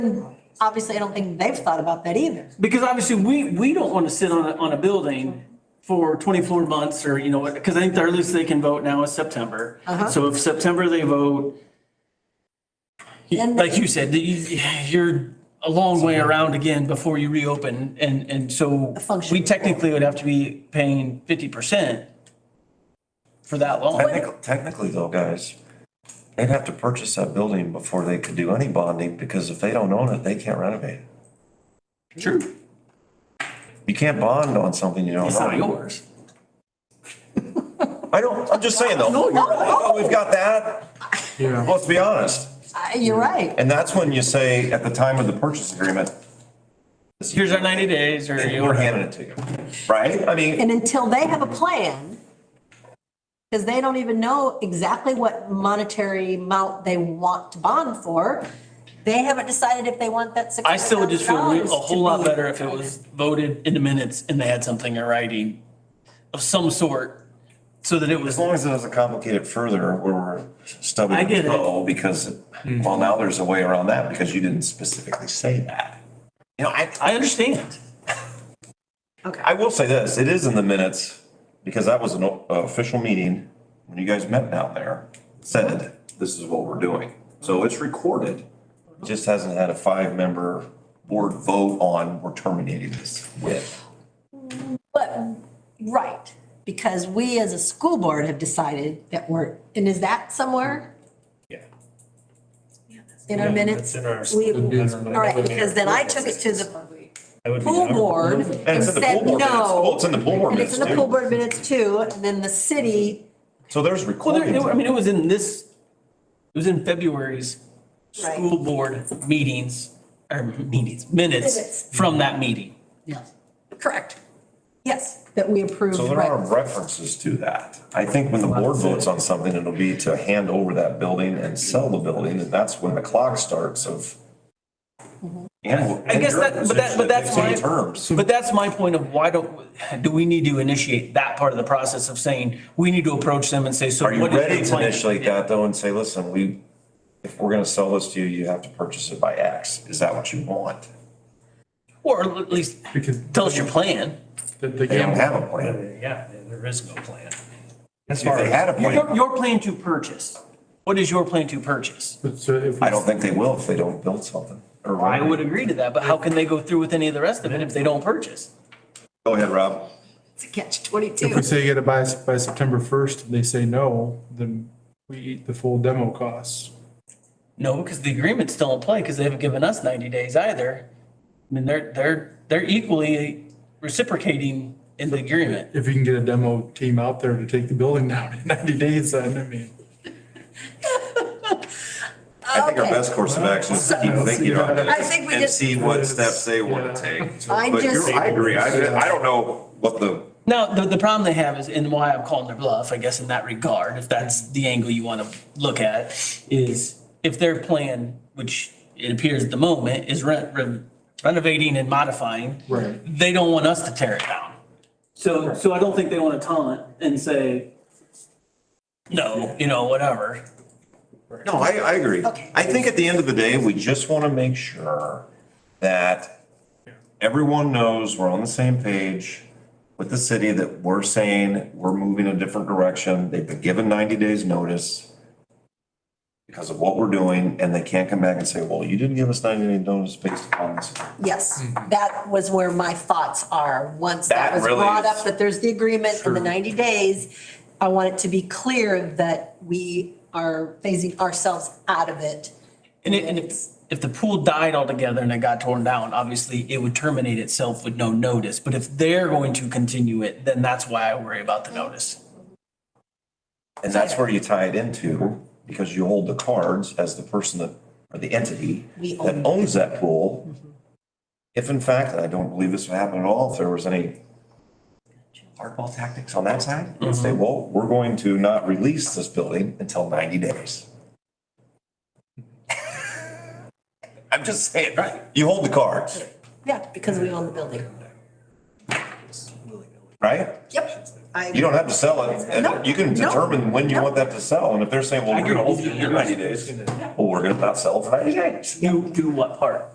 Obviously, I don't think they've thought about that either. Because obviously, we, we don't want to sit on a, on a building for 24 months or, you know, because I think the earliest they can vote now is September. Uh-huh. So if September they vote, you- Then they- like you said, you- you're a long way around again before you reopen. And, and so function. we technically would have to be paying 50% for that long. Technically, technically though, guys, they'd have to purchase that building before they could do any bonding, because if they don't own it, they can't renovate it. True. You can't bond on something you don't It's not own. yours. I don't, I'm just saying though. Oh, We've got that. Let's be honest. I- You're right. And that's when you say, at the time of the purchase agreement, Here's our 90 days or. we're handing it to you, right? I mean, And until they have a plan, because they don't even know exactly what monetary amount they want to bond for, they haven't decided if they want that six I hundred still would just feel re- a thousand dollars to whole lot be- better if it was voted in the minutes and they had something in writing of some sort, so that it as was, long as it doesn't complicate it further, where we're stubbing I the get it. toe, because, well, now there's a way around that, because you didn't specifically say that. You know, I, I understand. I will say this, it is in the minutes, because that was an o- uh, official meeting, when you guys met down there, said, this is what we're doing. So it's recorded, It just hasn't had a five-member board vote on, we're terminating this with. But, right, because we as a school board have decided that we're, and is that somewhere Yeah. in our minutes? in our- We- Should be in our All right, because then I took it to the That would be pool our- board And and it's in the pool said board minutes, well, no. it's in the pool board And minutes it's in the pool too. board minutes too, and then the city, So there's Well, there, I recordings. mean, it was in this, it was in February's Right. school board meetings, or meetings, minutes Minutes. from that meeting. correct, yes, that we approved. So there right. are references to that. I think when the board votes on something, it'll be to hand over that building and sell the building, and that's when the clock starts of. And. I guess that- but that- but that's my my- Terms. But that's my point of why don't, do we need to initiate that part of the process of saying, we need to approach them and say, so Are you what is your ready to plan? initiate that though and say, listen, we, if we're gonna sell this to you, you have to purchase it by X. Is that what you want? Or at least Because tell us your plan. the, They the don't gamble. have a plan. Yeah, there is no plan. If they had a Your, plan, your plan to purchase. What is your plan to purchase? But so if. we- I don't think they will if they don't build something. or- I would agree to that, but how can they go through with any of the rest of it if they don't purchase? Go ahead, Rob. It's a catch twenty-two. If we say you gotta buy s- by September first, and they say no, then we eat the full demo costs. No, because the agreement's still in play because they haven't given us ninety days either. I mean, they're, they're, they're equally reciprocating in the agreement. If you can get a demo team out there to take the building down in ninety days, then I mean. I think our Okay. best course of action is to keep thinking on it. I think we And just- see what steps they want to Yeah. take. I But you're- just- I agree. I, I don't know what the, Now, the, the problem they have is, and why I'm calling their bluff, I guess, in that regard, if that's the angle you want to look at, is if their plan, which it appears at the moment, is ren- ren- renovating and modifying. Right. They don't want us to tear it down. So, so I don't think they want to taunt and say, no, you know, whatever. no, I, I agree. Okay. I think at the end of the day, we just want to make sure that everyone knows we're on the same page with the city, that we're saying we're moving a different direction. They've been given ninety days notice because of what we're doing, and they can't come back and say, well, you didn't give us ninety days notice based upon this. Yes, that was where my thoughts are. Once that That was really brought is- up, that there's the agreement in the 90 days, I want it to be clear that we are phasing ourselves out of it. And it, and if, if the pool died altogether and it got torn down, obviously it would terminate itself with no notice. But if they're going to continue it, then that's why I worry about the notice. And that's where you tie it into, because you hold the cards as the person that, or the entity We that own. Mm-hmm. owns that pool. If in fact, and I don't believe this would happen at all, if there was any hardball tactics on that side, and say, well, we're going to not release this building until ninety days. I'm just saying, right? You hold the cards, Yeah, because we own the building. right? Yep. I- You don't have to sell it, No, and you can no, determine when you no. want that to sell, and if they're saying, well, I we're gonna agree. hold it for ninety days, well, we're gonna not sell it for ninety days. You do what part?